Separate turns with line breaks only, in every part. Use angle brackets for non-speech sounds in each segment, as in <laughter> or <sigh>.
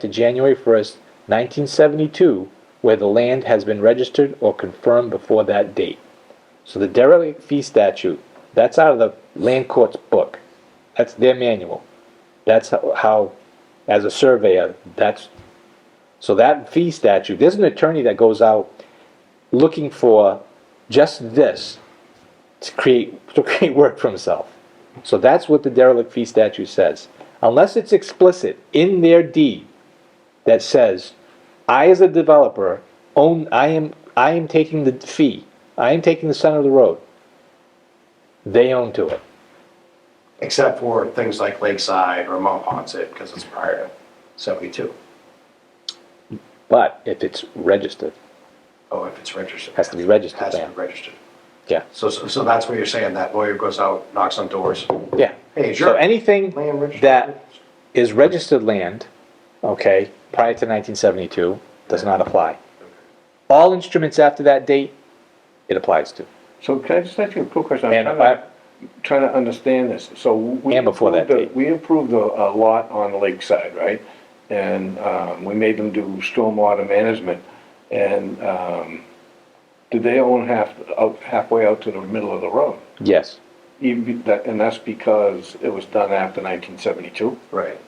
to January 1st, 1972, where the land has been registered or confirmed before that date. So the derelict fee statute, that's out of the land court's book. That's their manual. That's how- how, as a surveyor, that's, so that fee statute, there's an attorney that goes out looking for just this to create, to create work for himself. So that's what the derelict fee statute says. Unless it's explicit in their deed, that says, I as a developer own, I am, I am taking the fee, I am taking the center of the road. They own to it.
except for things like Lakeside or Mount Ponset, because it's prior to 72.
But if it's registered,
Oh, if it's registered.
Has to be registered,
Has to
yeah.
be registered.
yeah,
So, so so that's what you're saying, that lawyer goes out, knocks on doors.
yeah.
Hey,
So
sure.
anything
Land registered.
that is registered land, okay, prior to nineteen seventy-two, does not apply. All instruments after that date, it applies to,
So can I just ask you a quick question?
And
I'm
if I-
trying to, trying to understand this. So we.
And before that
improved the-
date.
We improved the uh, lot on Lakeside, right? And um, we made them do stormwater management. And um, did they own half, out- halfway out to the middle of the road?
yes.
Even be- that- And that's because it was done after 1972?
Right.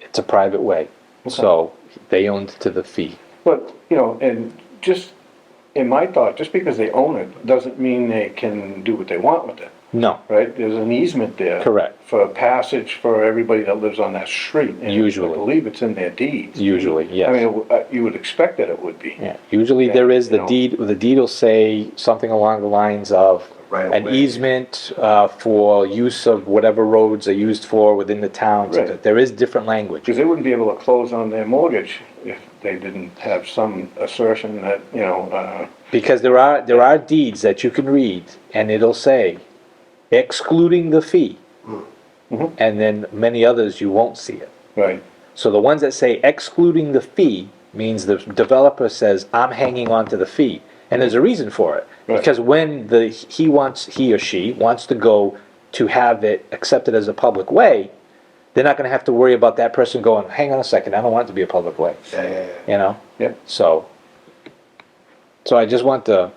It's a private way, so they owned to the fee.
But, you know, and just, in my thought, just because they own it doesn't mean they can do what they want with it.
No,
right? There's an easement there.
Correct.
For passage for everybody that lives on that street. and
Usually.
I believe it's in their deeds.
usually, yes.
I mean, w- uh, you would expect that it would be.
Yeah, usually there is,
You
the
know.
deed, the deed will say something along the lines of
Right
an
away.
easement uh, for use of whatever roads are used for within the town. So
Right.
that There is different language.
Because they wouldn't be able to close on their mortgage if they didn't have some assertion that, you know, uh,
Because there are, there are deeds that you can read and it'll say excluding the fee. And then many others, you won't see it.
right,
So the ones that say excluding the fee means the developer says, I'm hanging on to the fee. And there's a reason for it.
Right.
Because when the, he wants, he or she wants to go to have it accepted as a public way, they're not gonna have to worry about that person going, hang on a second, I don't want it to be a public way,
Yeah, yeah, yeah.
you know?
yep,
So, so I just want to,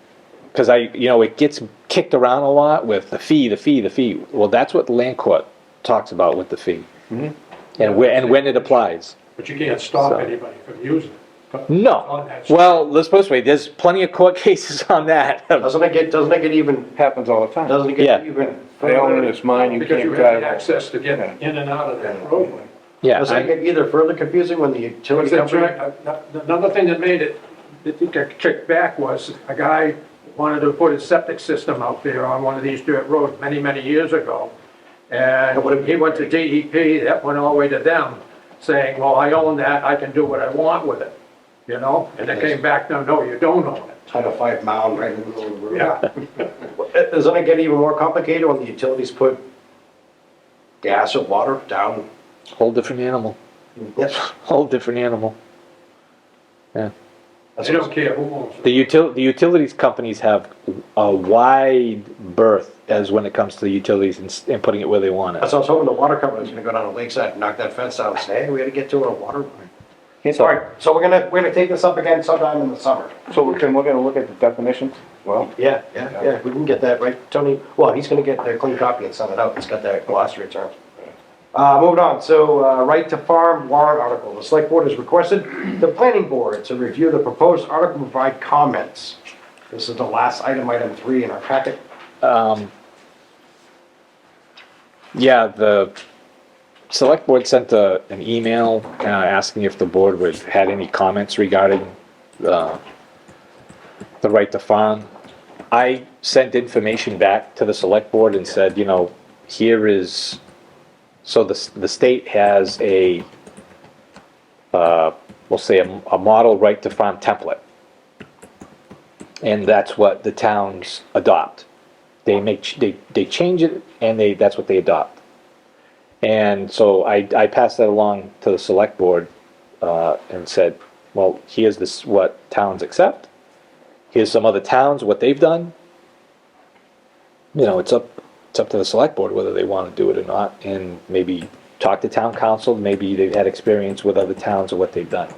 because I, you know, it gets kicked around a lot with the fee, the fee, the fee. Well, that's what the land court talks about with the fee. And where, and when it applies.
But you can't stop
So-
anybody from using it. On
No.
that street.
Well, let's put it this way, there's plenty of court <laughs> cases on that.
Doesn't it get, doesn't it get even,
happens all the time.
doesn't it
Yeah.
get even?
They own it, it's mine, you
Because
can't
you have
drive.
the
it.
access to get in and out of that roadway.
Yeah,
Doesn't it
I-
get either further confusing when the utility
Because that
company?
drag- uh, Another thing that made it, that it got kicked back was a guy wanted to put a septic system out there on one of these dirt roads many, many years ago. And
would've
he went to DEP, that went all the way to them, saying, well, I own that, I can do what I want with it, you know? And they came back, no, no, you don't own it.
Title Five mound right in the middle of the road.
Yeah,
<laughs> Uh, Doesn't it get even more complicated when the utilities put gas or water down?
whole different animal,
Yes.
whole different animal. Yeah.
they don't care who owns it.
The util, the utilities companies have a wide berth as when it comes to the utilities and, s- and putting it where they want it.
That's what I was hoping the water company was gonna go down to Lakeside and knock that fence down and say, hey, we gotta get to a water line.
Can't-
All right, so we're gonna, we're gonna take this up again sometime in the summer.
So we're gonna, we're gonna look at the definitions? Well,
Yeah, yeah, yeah, we can get that, right, Tony? Well, he's gonna get the clean copy and send it out, it's got that glossary term. Uh, moving on, so, uh, right to farm warrant article, the select board has requested the planning board to review the proposed article and provide comments. This is the last item, item three in our packet.
Yeah, the select board sent a, an email, uh, asking if the board would, had any comments regarding, uh, the right to farm. I sent information back to the select board and said, you know, here is, so the, s- the state has a, uh, we'll say a, a model right to farm template. And that's what the towns adopt they make ch- they, they change it and they that's what they adopt and so i i passed that along to the select board uh, and said well here's this what towns accept here's some other towns what they've done you know it's up it's up to the select board whether they want to do it or not and maybe talk to town council, maybe they've had experience with other towns or what they've done.